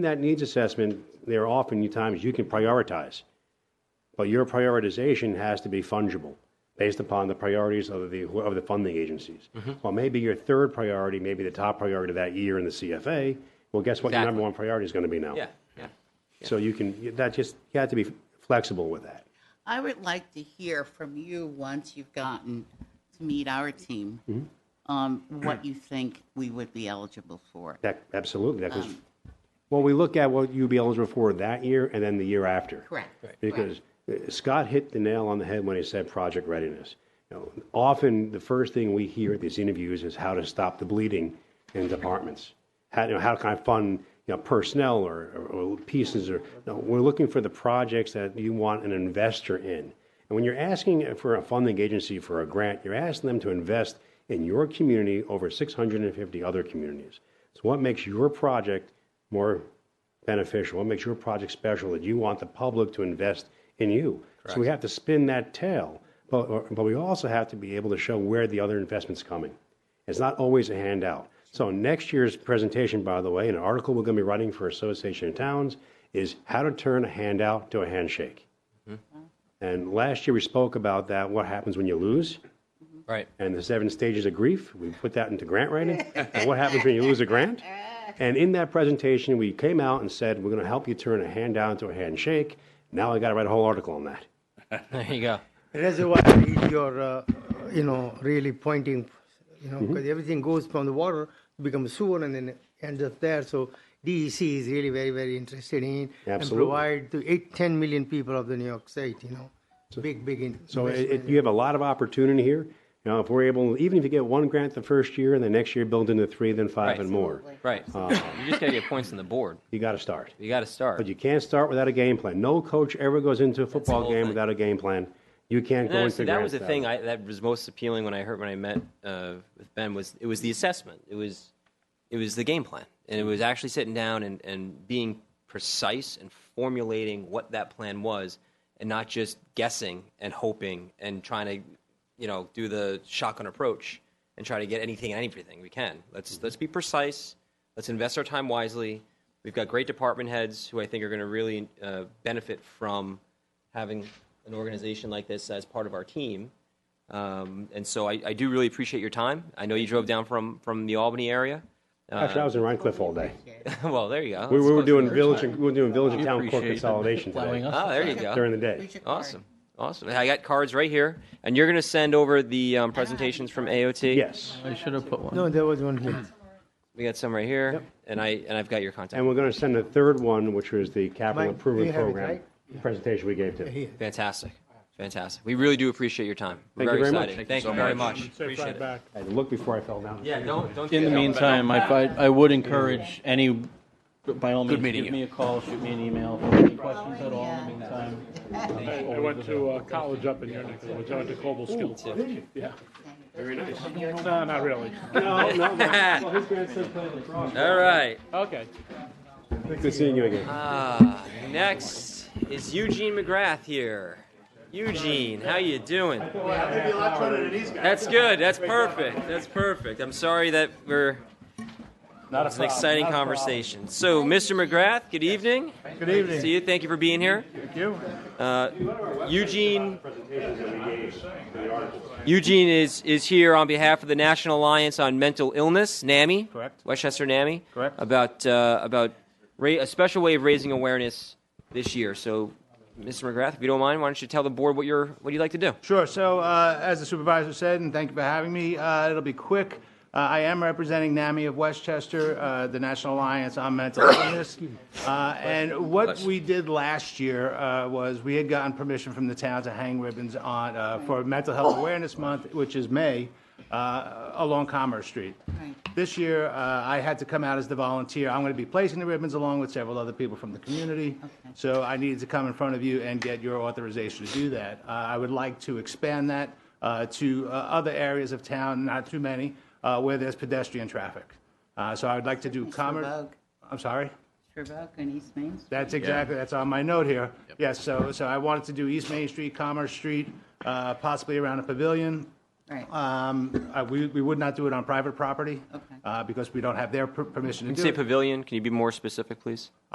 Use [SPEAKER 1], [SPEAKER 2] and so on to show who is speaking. [SPEAKER 1] that needs assessment, there are often times you can prioritize, but your prioritization has to be fungible based upon the priorities of the, of the funding agencies.
[SPEAKER 2] Mm-hmm.
[SPEAKER 1] Well, maybe your third priority, maybe the top priority that year in the CFA, well, guess what your
[SPEAKER 2] Exactly.
[SPEAKER 1] number one priority is going to be now?
[SPEAKER 2] Yeah, yeah.
[SPEAKER 1] So you can, that just, you have to be flexible with that.
[SPEAKER 3] I would like to hear from you once you've gotten to meet our team, um, what you think we would be eligible for.
[SPEAKER 1] That, absolutely,
[SPEAKER 2] Um.
[SPEAKER 1] that goes, well, we look at what you'd be eligible for that year and then the year after.
[SPEAKER 3] Correct. Right.
[SPEAKER 1] Because uh, Scott hit the nail on the head when he said project readiness. You know, often, the first thing we hear at these interviews is how to stop the bleeding in departments. How, you know, how can I fund, you know, personnel or, or- or pieces or, no, we're looking for the projects that you want an investor in. And when you're asking for a funding agency for a grant, you're asking them to invest in your community over 650 other communities. So what makes your project more beneficial? What makes your project special that you want the public to invest in you? So we have to spin that tail, but, or- but we also have to be able to show where the other investment's coming. It's not always a handout. So next year's presentation, by the way, an article we're going to be writing for Association of Towns is how to turn a handout to a handshake. And last year we spoke about that, what happens when you lose,
[SPEAKER 2] Right.
[SPEAKER 1] and the seven stages of grief. We put that into grant writing. and what happens when you lose a grant? And in that presentation, we came out and said, we're going to help you turn a handout into a handshake. Now I got to write a whole article on that.
[SPEAKER 2] There you go.
[SPEAKER 4] reservoir is your, uh, you know, really pointing, you know, because
[SPEAKER 1] Mm-hmm.
[SPEAKER 4] everything goes from the water, becomes sewer, and then it ends up there. So DEC is really very, very interested in and
[SPEAKER 1] Absolutely.
[SPEAKER 4] provide to eight, 10 million people of the New York State, you know, big, big. In-
[SPEAKER 1] So it,
[SPEAKER 4] investment.
[SPEAKER 1] it, you have a lot of opportunity here. You know, if we're able, even if you get one grant the first year and the next year build into three, then five
[SPEAKER 2] Right.
[SPEAKER 1] and more,
[SPEAKER 2] Right. you just got to get points on the board.
[SPEAKER 1] you got to start.
[SPEAKER 2] You got to start.
[SPEAKER 1] But you can't start without a game plan. No coach ever goes into a football
[SPEAKER 2] whole
[SPEAKER 1] game
[SPEAKER 2] thing.
[SPEAKER 1] without a game plan. You can't
[SPEAKER 2] And
[SPEAKER 1] go
[SPEAKER 2] honestly,
[SPEAKER 1] into
[SPEAKER 2] that
[SPEAKER 1] grant
[SPEAKER 2] was the
[SPEAKER 1] without
[SPEAKER 2] thing
[SPEAKER 1] it.
[SPEAKER 2] I, that was most appealing when I heard when I met uh, with Ben was it was the assessment. It was it was the game plan, and it was actually sitting down and, and being precise and formulating what that plan was, and not just guessing and hoping and trying to you know do the shotgun approach and try to get anything and everything we can. Let's
[SPEAKER 1] Mm-hmm.
[SPEAKER 2] let's be precise. Let's invest our time wisely. We've got great department heads who I think are going to really uh, benefit from having an organization like this as part of our team. Um, and so I, I do really appreciate your time. I know you drove down from, from the Albany area.
[SPEAKER 1] Actually, I was in Rhine Cliff all
[SPEAKER 2] uh,
[SPEAKER 1] day.
[SPEAKER 2] well, there you
[SPEAKER 1] We,
[SPEAKER 2] go. That's
[SPEAKER 1] we were
[SPEAKER 2] close
[SPEAKER 1] doing
[SPEAKER 2] enough.
[SPEAKER 1] village, and- we were doing village and town court
[SPEAKER 5] appreciate it.
[SPEAKER 1] consolidation
[SPEAKER 5] Allowing
[SPEAKER 1] today
[SPEAKER 5] us
[SPEAKER 2] Oh, there you go.
[SPEAKER 1] during the day.
[SPEAKER 3] Who's your card?
[SPEAKER 2] Awesome. Awesome. I got cards right here. And you're going to send over the um, presentations from AOT?
[SPEAKER 1] Yes.
[SPEAKER 5] I should have put one.
[SPEAKER 4] No, there was one here.
[SPEAKER 2] We got some right here. And, I, and I've got your contact.
[SPEAKER 1] And we're going to send a third one, which was the capital
[SPEAKER 4] Mike, you
[SPEAKER 1] improvement
[SPEAKER 4] have it,
[SPEAKER 1] program
[SPEAKER 4] right?
[SPEAKER 1] the presentation we gave to.
[SPEAKER 2] Fantastic. Fantastic. We really do appreciate your time.
[SPEAKER 1] Thank you
[SPEAKER 2] We're very
[SPEAKER 1] very much.
[SPEAKER 2] excited. Thank you very much. Appreciate it.
[SPEAKER 1] I had to look before I fell down.
[SPEAKER 2] Yeah, don't, don't
[SPEAKER 5] In the
[SPEAKER 2] do that.
[SPEAKER 5] meantime, I, fi- I would encourage any, by all means,
[SPEAKER 2] meeting
[SPEAKER 5] give
[SPEAKER 2] you.
[SPEAKER 5] me a call, shoot me an email, if there's any questions at all in the meantime.
[SPEAKER 6] I went to uh, college up in your neck of the woods, I went to Cobble Skills. Yeah. Very nice. No, not really.
[SPEAKER 1] Oh,
[SPEAKER 2] All right.
[SPEAKER 6] Okay.
[SPEAKER 1] Good seeing you again.
[SPEAKER 2] Ah, next is Eugene McGrath here. Eugene, how you doing? That's good. That's perfect. That's perfect. I'm sorry that we're. it's an exciting conversation. So, Mr. McGrath, good evening. Good evening. See you. Thank you for being here. Thank you. Uh, Eugene. Eugene is, is here on behalf of the National Alliance on Mental Illness, NAMI.
[SPEAKER 7] Correct.
[SPEAKER 2] Westchester NAMI.
[SPEAKER 7] Correct.
[SPEAKER 2] About uh, about ra- a special way of raising awareness this year. So, Mr. McGrath, if you don't mind, why don't you tell the board what you're what you like to do?
[SPEAKER 7] Sure. So, uh, as the supervisor said, and thank you for having me, uh, it'll be quick. Uh, I am representing NAMI of Westchester, uh, the National Alliance on Mental Illness. Uh, and what we did last year uh, was we had gotten permission from the town to hang ribbons on uh, for Mental Health Awareness Month, which is May, uh, along Commerce Street.
[SPEAKER 3] Right.
[SPEAKER 7] This year, uh, I had to come out as the volunteer. I'm going to be placing the ribbons along with several other people from the community. So I needed to come in front of you and get your authorization to do that. Uh, I would like to expand that uh, to uh, other areas of town, not too many, uh, where there's pedestrian traffic. Uh, So I would like to do
[SPEAKER 3] Mr.
[SPEAKER 7] commerce.
[SPEAKER 3] Vogue.
[SPEAKER 7] I'm sorry?
[SPEAKER 3] Sherbrooke and East Main Street.
[SPEAKER 7] That's exactly, that's on my note here. Yes, so, so I wanted to do East Main Street, Commerce Street, uh, possibly around a pavilion.
[SPEAKER 3] Right.
[SPEAKER 7] Um, uh, We, we would not do it on private property.
[SPEAKER 3] Okay.
[SPEAKER 7] uh, Because we don't have their per- permission to
[SPEAKER 2] You
[SPEAKER 7] do
[SPEAKER 2] say
[SPEAKER 7] it.
[SPEAKER 2] pavilion. Can you be more specific, please?